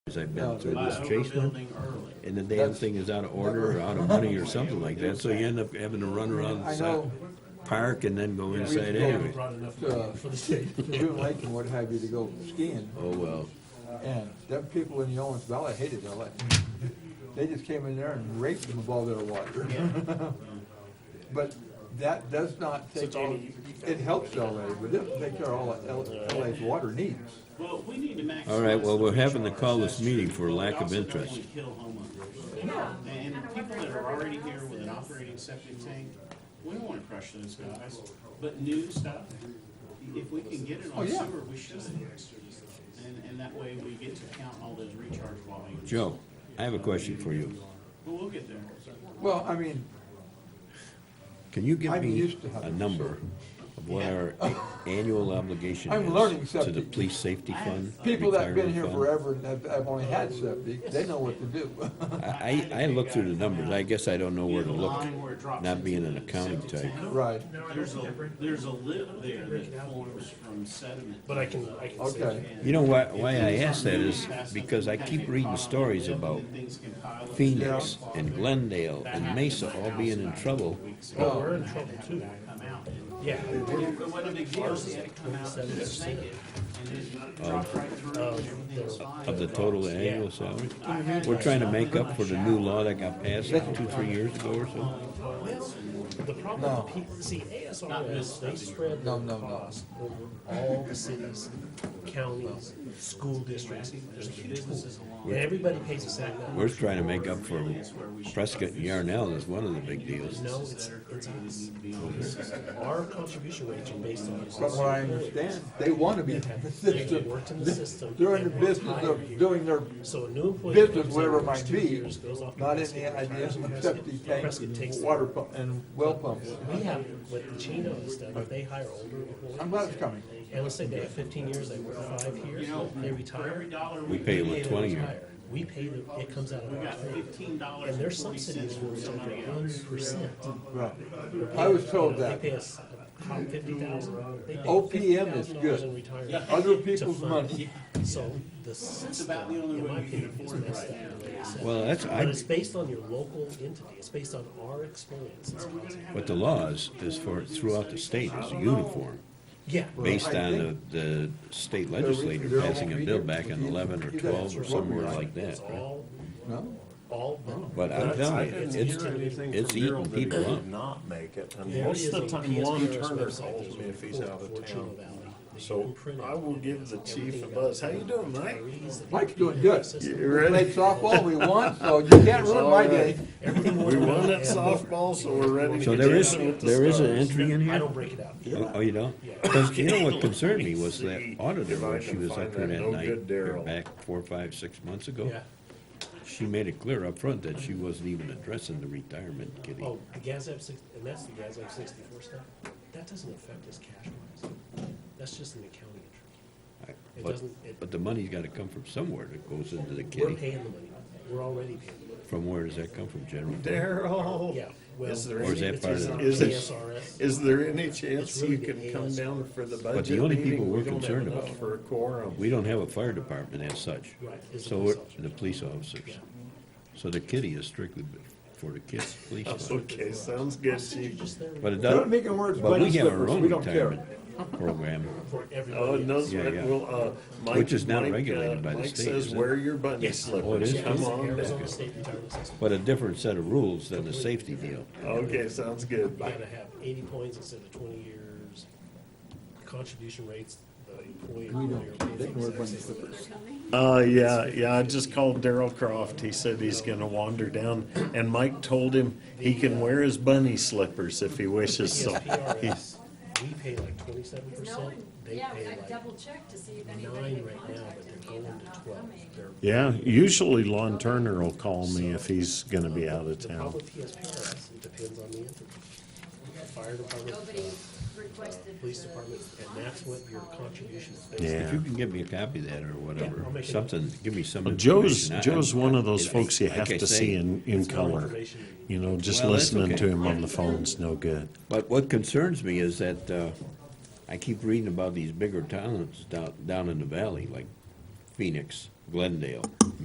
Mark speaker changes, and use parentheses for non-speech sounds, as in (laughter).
Speaker 1: because I've
Speaker 2: No,
Speaker 1: been through
Speaker 3: By
Speaker 1: this chase one.
Speaker 3: overbuilding early.
Speaker 1: And the damn
Speaker 2: That's-
Speaker 1: thing is out of order or out of money or something like that, so you end up having to run around
Speaker 2: I
Speaker 1: the side,
Speaker 2: know.
Speaker 1: park and then go
Speaker 3: Yeah,
Speaker 1: inside
Speaker 3: we haven't
Speaker 1: anyway.
Speaker 3: brought enough
Speaker 2: Uh,
Speaker 3: money for
Speaker 2: (laughs)
Speaker 3: the state.
Speaker 2: to Boone Lake and what have you to go skiing,
Speaker 1: Oh, well,
Speaker 2: and them people in the Owens Valley hated LA. They just came in there and raped them of all their water. But that does not take all, it helps LA, but it doesn't take care of all of LA's water needs.
Speaker 3: Well, we need to maximize.
Speaker 1: all right, well,
Speaker 3: the
Speaker 1: we're having to call this
Speaker 3: recharge.
Speaker 1: meeting for
Speaker 3: But we
Speaker 1: lack of
Speaker 3: also don't
Speaker 1: interest.
Speaker 3: wanna kill homeowners. And people that are already here with an operating septic tank, we don't wanna crush those guys, but new stuff, if we can get it
Speaker 2: Oh,
Speaker 3: on
Speaker 2: yeah.
Speaker 3: sewer, we should. And, and that way we get to count all those recharge volumes.
Speaker 1: Joe, I have a question for you.
Speaker 3: But we'll get there.
Speaker 2: Well, I mean,
Speaker 1: Can you give
Speaker 2: I'm
Speaker 1: me
Speaker 2: used to
Speaker 1: a
Speaker 2: having-
Speaker 1: number of what our a- annual obligation
Speaker 2: I'm learning
Speaker 1: is to the
Speaker 2: something.
Speaker 1: police safety fund?
Speaker 2: people that've been here
Speaker 1: retirement fund?
Speaker 2: forever and have, have only had septic, they know what to do. (laughs)
Speaker 1: I, I I looked through the numbers, I guess I don't know where to
Speaker 3: You know, the
Speaker 1: look,
Speaker 3: line where it drops
Speaker 1: not
Speaker 3: into
Speaker 1: being an
Speaker 3: the
Speaker 1: accounting
Speaker 3: septic
Speaker 1: type.
Speaker 3: tank.
Speaker 2: Right,
Speaker 3: There's a, there's a lip there that forms from sediment.
Speaker 4: But I can, I can say.
Speaker 2: okay.
Speaker 1: You know why, why I ask that is because I keep reading stories about Phoenix and Glendale and Mesa all being in trouble.
Speaker 4: Oh, we're in trouble too. Yeah,
Speaker 3: It wasn't a big deal, they had to come out and just sink it, and then drop right through, and everything was fine.
Speaker 1: Of the total annual salary? We're trying to make up for the new law that got passed two, three years ago or so.
Speaker 4: the problem,
Speaker 2: No.
Speaker 4: with people, see, ASR is they spread
Speaker 2: No,
Speaker 4: their
Speaker 2: no, no.
Speaker 4: costs over all the cities, counties, school districts. There's a huge pool. And everybody pays the same amount.
Speaker 1: We're trying to make up for Prescott and Yarnell is one of the big deals.
Speaker 4: No, it's, it's us. Our contribution rates are based on.
Speaker 2: from what I understand, they want to be in (laughs) the
Speaker 4: They
Speaker 2: system.
Speaker 4: worked in the system.
Speaker 2: They're in the
Speaker 4: and they
Speaker 2: business
Speaker 4: hire
Speaker 2: of
Speaker 4: you.
Speaker 2: doing their
Speaker 4: So a new employee. that
Speaker 2: business,
Speaker 4: comes in,
Speaker 2: whatever it
Speaker 4: works
Speaker 2: might
Speaker 4: two
Speaker 2: be,
Speaker 4: years, goes off to
Speaker 2: not in
Speaker 4: Prescott,
Speaker 2: the idea
Speaker 4: retires in
Speaker 2: of
Speaker 4: Prescott.
Speaker 2: septic
Speaker 4: Prescott takes
Speaker 2: tanks,
Speaker 4: their-
Speaker 2: water pump, and well pumps.
Speaker 4: We have, with the Chino and stuff, if they hire older employees.
Speaker 2: I'm glad it's coming.
Speaker 4: And let's say they have fifteen years, they work five
Speaker 3: You
Speaker 4: years,
Speaker 3: know,
Speaker 4: they
Speaker 3: for every
Speaker 4: retire.
Speaker 3: dollar
Speaker 1: We
Speaker 3: we
Speaker 1: pay them
Speaker 4: we
Speaker 1: a
Speaker 4: pay
Speaker 1: twenty
Speaker 4: them
Speaker 1: year.
Speaker 4: higher. We pay them, it comes out of
Speaker 3: got
Speaker 4: our pay.
Speaker 3: fifteen dollars
Speaker 4: And
Speaker 3: and
Speaker 4: their
Speaker 3: forty
Speaker 4: subsidies
Speaker 3: cents
Speaker 4: were
Speaker 3: from
Speaker 4: something
Speaker 3: somebody
Speaker 4: one
Speaker 3: else.
Speaker 4: percent.
Speaker 2: Right. I was told that.
Speaker 4: They pay us um, fifty thousand.
Speaker 2: OPM is good.
Speaker 4: In retirement.
Speaker 2: Other
Speaker 4: to
Speaker 2: people's
Speaker 4: fund-
Speaker 2: money.
Speaker 4: So the system,
Speaker 3: about the only
Speaker 4: in
Speaker 3: way
Speaker 4: my
Speaker 3: we can
Speaker 4: opinion, is
Speaker 3: afford it
Speaker 4: messed
Speaker 3: right
Speaker 4: up. the way it's set.
Speaker 1: Well, that's,
Speaker 4: But
Speaker 1: I,
Speaker 4: it's based on your local entity, it's based on our experience. It's housing.
Speaker 1: what the law is, is for throughout the state is uniform,
Speaker 4: Yeah.
Speaker 1: based on the, the state legislature passing a bill back in eleven or twelve or somewhere like that,
Speaker 4: It's
Speaker 1: right?
Speaker 4: all,
Speaker 2: No?
Speaker 4: all,
Speaker 1: But I'm telling you, it's, it's eating people up.
Speaker 5: Not make it, and
Speaker 4: There
Speaker 5: most
Speaker 4: is
Speaker 5: of the
Speaker 4: a
Speaker 5: time,
Speaker 4: PSPRS
Speaker 5: Lon Turner
Speaker 4: website
Speaker 5: calls
Speaker 4: that's
Speaker 5: me if he's out
Speaker 4: for
Speaker 5: of
Speaker 4: Chino
Speaker 5: town.
Speaker 4: Valley. They
Speaker 5: So
Speaker 4: can print it.
Speaker 5: I will give the chief a buzz, how you doing, Mike?
Speaker 4: Everything.
Speaker 2: Mike's doing good.
Speaker 5: You
Speaker 2: We
Speaker 5: ready?
Speaker 2: played softball we won, so you can't ruin my day.
Speaker 4: Every
Speaker 5: We
Speaker 4: morning
Speaker 5: won
Speaker 4: I
Speaker 5: at
Speaker 4: have work.
Speaker 5: softball, so we're ready to
Speaker 1: So
Speaker 5: get
Speaker 1: there is,
Speaker 5: dancing with the
Speaker 1: there is an
Speaker 5: stars.
Speaker 1: entry in
Speaker 4: I
Speaker 1: here?
Speaker 4: don't break it out.
Speaker 1: Oh, you don't? Because you know what concerned me was that auditor,
Speaker 5: If I
Speaker 1: when she
Speaker 5: can
Speaker 1: was
Speaker 5: find
Speaker 1: up here
Speaker 5: that
Speaker 1: that
Speaker 5: no
Speaker 1: night,
Speaker 5: good
Speaker 1: or
Speaker 5: Daryl.
Speaker 1: back four, five, six months ago,
Speaker 4: Yeah,
Speaker 1: she made it clear up front that she wasn't even addressing the retirement kitty.
Speaker 4: oh, the GASAP six, and that's the GASAP sixty-four stuff, that doesn't affect us cash wise, that's just an accounting entry.
Speaker 1: I-
Speaker 4: It
Speaker 1: But,
Speaker 4: doesn't, it,
Speaker 1: but the money's gotta come from somewhere that goes into the
Speaker 4: we're
Speaker 1: kitty.
Speaker 4: paying the money, we're already paying the money.
Speaker 1: From where does that come from, General?
Speaker 5: Daryl.
Speaker 4: Yeah, well.
Speaker 5: Is there
Speaker 1: Or is
Speaker 5: any,
Speaker 1: that part of the-
Speaker 5: is
Speaker 4: it?
Speaker 5: it, is there any chance
Speaker 4: really
Speaker 5: you
Speaker 4: the
Speaker 5: can come
Speaker 4: ASR.
Speaker 5: down for the
Speaker 1: the
Speaker 5: budget
Speaker 1: only
Speaker 5: meeting?
Speaker 1: people
Speaker 5: We
Speaker 1: we're
Speaker 5: don't have
Speaker 1: concerned
Speaker 5: enough
Speaker 1: about-
Speaker 5: For a quorum.
Speaker 1: We don't have a fire department as such.
Speaker 4: Right, it's the
Speaker 1: So,
Speaker 4: police
Speaker 1: we're-
Speaker 4: officers.
Speaker 1: the police officers. So the kitty is strictly for the kids, police.
Speaker 5: Oh,
Speaker 1: fund.
Speaker 5: (laughs) Okay, sounds good,
Speaker 4: You're
Speaker 5: chief.
Speaker 4: just there
Speaker 1: But it
Speaker 2: Don't
Speaker 1: doesn't,
Speaker 2: make it worse,
Speaker 1: but we
Speaker 2: buddy
Speaker 1: have our
Speaker 2: slippers,
Speaker 1: own
Speaker 2: we don't care.
Speaker 1: retirement program.
Speaker 4: for
Speaker 5: Oh,
Speaker 4: everybody
Speaker 5: no,
Speaker 4: else.
Speaker 1: Yeah, yeah.
Speaker 5: well, uh, Mike.
Speaker 1: Which is not
Speaker 5: Mike, uh,
Speaker 1: regulated by the state,
Speaker 5: Mike
Speaker 1: is
Speaker 5: says,
Speaker 1: it?
Speaker 5: wear your bunny
Speaker 4: Yes. Oh,
Speaker 1: it
Speaker 5: slippers,
Speaker 1: is?
Speaker 4: Yeah,
Speaker 5: come
Speaker 4: it's
Speaker 5: on down.
Speaker 4: Arizona State retirement system.
Speaker 1: But a different set of rules than the safety deal.
Speaker 5: Okay, sounds good.
Speaker 4: You gotta have eighty points instead of twenty years, contribution rates, the
Speaker 2: We
Speaker 4: employee. employer
Speaker 2: don't,
Speaker 4: pays
Speaker 2: they can wear
Speaker 4: the
Speaker 2: bunny
Speaker 4: exact same.
Speaker 2: slippers.
Speaker 5: Uh, yeah, yeah, I just called Daryl Croft. He said he's gonna wander down, and Mike told him he can wear his bunny slippers if he wishes, so.
Speaker 4: PSPRS, we pay like twenty-seven
Speaker 6: Because no
Speaker 4: percent,
Speaker 6: one,
Speaker 4: they
Speaker 6: yeah,
Speaker 4: pay
Speaker 6: I
Speaker 4: like
Speaker 6: double checked to see if anybody
Speaker 4: nine
Speaker 6: had
Speaker 4: right now, but
Speaker 6: contacted
Speaker 4: they're
Speaker 6: me
Speaker 4: going
Speaker 6: about
Speaker 4: to
Speaker 6: not
Speaker 4: twelve.
Speaker 6: coming.
Speaker 4: They're-
Speaker 5: Yeah, usually Lon Turner will call me if he's gonna be out of
Speaker 4: The problem
Speaker 5: town.
Speaker 4: with PSPRS, it depends on the entity. The Fire department,
Speaker 6: Nobody
Speaker 4: uh,
Speaker 6: requested.
Speaker 4: police
Speaker 6: the
Speaker 4: department, and that's what your contribution is based on.
Speaker 5: Yeah.
Speaker 1: If you can give me a copy of that or
Speaker 4: Yeah, I'll
Speaker 1: whatever,
Speaker 4: make it.
Speaker 1: something, give me some.
Speaker 5: Joe's,
Speaker 1: information. I-
Speaker 5: Joe's one of those
Speaker 1: I-
Speaker 5: folks you
Speaker 1: like
Speaker 5: have
Speaker 1: I
Speaker 5: to
Speaker 1: say,
Speaker 5: see in, in
Speaker 4: More
Speaker 5: color.
Speaker 4: information you
Speaker 5: You know, just
Speaker 1: Well, that's
Speaker 5: listening to
Speaker 1: okay.
Speaker 5: him on the phone's no good.
Speaker 1: But what concerns me is that, uh, I keep reading about these bigger towns down, down in the valley, like Phoenix, Glendale,